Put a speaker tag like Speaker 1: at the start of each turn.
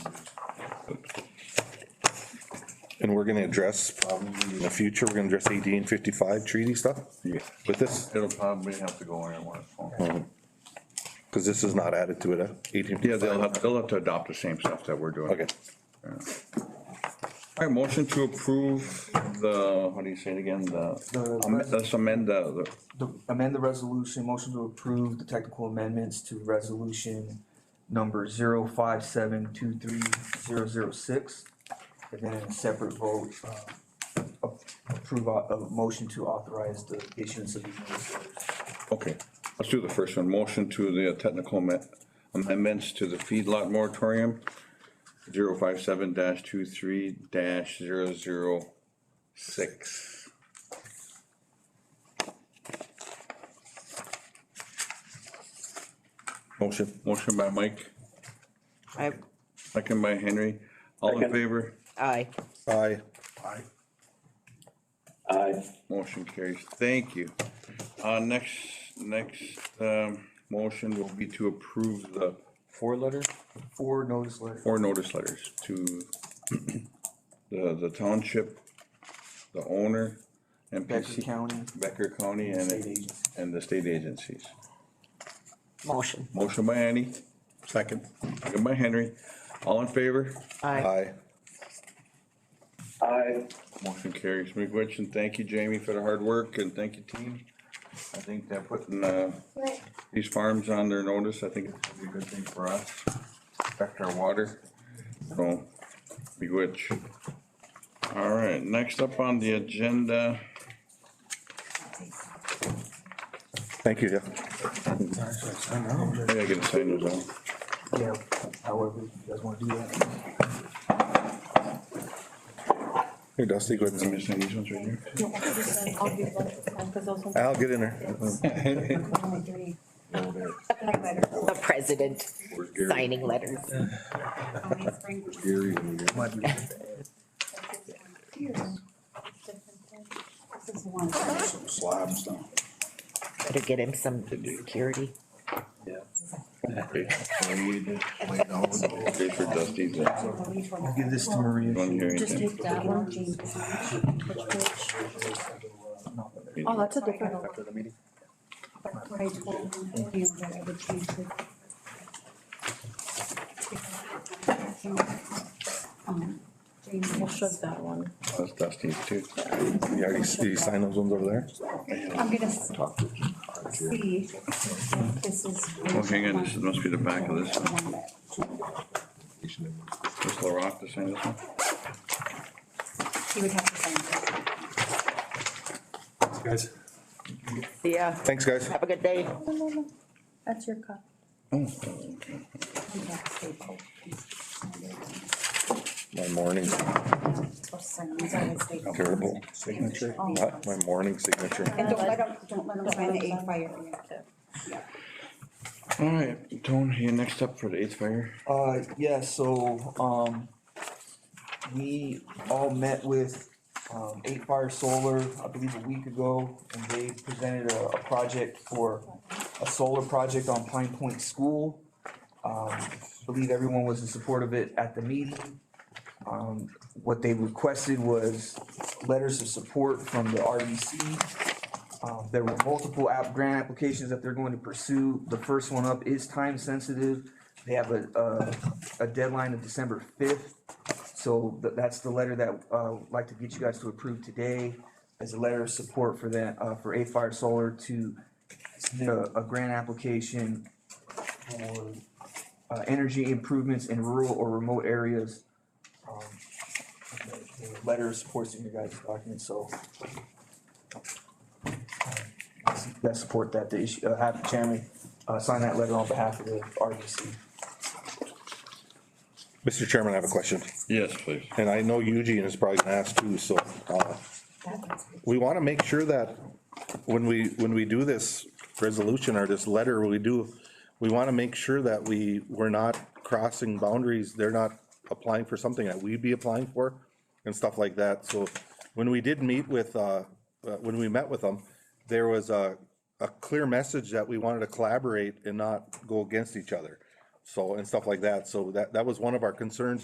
Speaker 1: And we're gonna address, probably in the future, we're gonna address eighteen fifty-five treaty stuff with this,
Speaker 2: It'll probably have to go anywhere.
Speaker 1: because this is not added to it, eighteen
Speaker 2: Yeah, they'll
Speaker 1: fifty-five.
Speaker 2: have, they'll have to adopt the same stuff that we're doing.
Speaker 1: Okay,
Speaker 2: All right, motion to approve the, how do you say it again, the,
Speaker 3: The-
Speaker 2: am- let's amend the, the-
Speaker 3: The- Amend the resolution, motion to approve the technical amendments to resolution number zero five seven two three zero zero six. And then in a separate vote, uh, a- approve a, a motion to authorize the issuance of these notice orders.
Speaker 2: okay, let's do the first one, motion to the technical amen- amendments to the feedlot moratorium, zero five seven dash two three dash zero zero six.
Speaker 1: motion.
Speaker 2: Motion by Mike,
Speaker 4: I,
Speaker 2: second by Henry, all in
Speaker 5: Second.
Speaker 2: favor,
Speaker 4: aye.
Speaker 1: Aye.
Speaker 5: Aye.
Speaker 2: motion carries, thank you. Uh, next, next, um, motion will be to approve the four letter?
Speaker 3: Four notice letters.
Speaker 2: four notice letters to the, the township, the owner,
Speaker 3: Becker
Speaker 2: MPC,
Speaker 3: County.
Speaker 2: Becker County and,
Speaker 3: State agency.
Speaker 2: and the state agencies.
Speaker 4: Motion,
Speaker 2: Motion by Annie,
Speaker 1: Second.
Speaker 2: second by Henry. All in favor?
Speaker 4: aye.
Speaker 1: Aye.
Speaker 5: Aye.
Speaker 2: Motion carries. McRich, and thank you, Jamie, for the hard work, and thank you, team. I think they're putting, uh, these farms on their notice. I think it's gonna be a good thing for us. Affect our water. So, McRich. All right, next up on the agenda.
Speaker 1: Thank you, yeah.
Speaker 2: Maybe I can sign those out.
Speaker 3: Yeah, however you guys wanna do that.
Speaker 1: Here, Dusty, go
Speaker 2: Am
Speaker 1: ahead.
Speaker 2: I signing these ones right here?
Speaker 1: I'll get in there.
Speaker 4: The president signing letters.
Speaker 3: Might be-
Speaker 6: This is one.
Speaker 5: Slabs down.
Speaker 4: Better get him some security.
Speaker 2: Okay. Okay, for Dusty's, uh,
Speaker 3: I'll give this to Maria.
Speaker 2: one here,
Speaker 6: Just
Speaker 2: anything.
Speaker 6: take that one, James.
Speaker 3: uh,
Speaker 7: Oh, that's a different one.
Speaker 6: After the meeting. I told you that I would change it. Um, James will shut that one.
Speaker 2: That's Dusty's too.
Speaker 1: You already, you sign those ones over there?
Speaker 6: I'm gonna s- see. if This is.
Speaker 2: Oh, hang on, this must be the back of this one. Is Larock to sign this one?
Speaker 6: He would have to sign this.
Speaker 8: guys.
Speaker 4: Yeah,
Speaker 1: Thanks, guys.
Speaker 4: have a good day.
Speaker 7: No, no, no. That's your cup.
Speaker 6: He'd have to say, oh, please.
Speaker 1: My morning,
Speaker 6: Or sign these on his date.
Speaker 1: terrible signature, not my morning signature.
Speaker 6: And don't let him, don't let him sign the eight fire.
Speaker 2: All right, Tone, you next up for the eighth fire.
Speaker 3: Uh, yeah, so, um, we all met with, um, Eight Fire Solar, I believe a week ago, and they presented a, a project for a solar project on Pine Point School. Um, I believe everyone was in support of it at the meeting. Um, what they requested was letters of support from the RBC. Um, there were multiple app grant applications that they're going to pursue. The first one up is time sensitive. They have a, a, a deadline of December fifth. So th- that's the letter that, uh, I'd like to get you guys to approve today as a letter of support for that, uh, for A Fire Solar to submit a, a grant application for, uh, energy improvements in rural or remote areas. Um, the- the Letter of support's in your guys' document, so that support that, the issue, uh, have the chairman, uh, sign that letter on behalf of the RBC.
Speaker 1: Mr. Chairman, I have a question,
Speaker 2: Yes, please.
Speaker 1: and I know Eugene is probably gonna ask too, so, uh, we want to make sure that when we, when we do this resolution or this letter, we do, we want to make sure that we, we're not crossing boundaries. They're not applying for something that we'd be applying for and stuff like that. So when we did meet with, uh, uh, when we met with them, there was a, a clear message that we wanted to collaborate and not go against each other. So, and stuff like that. So that, that was one of our concerns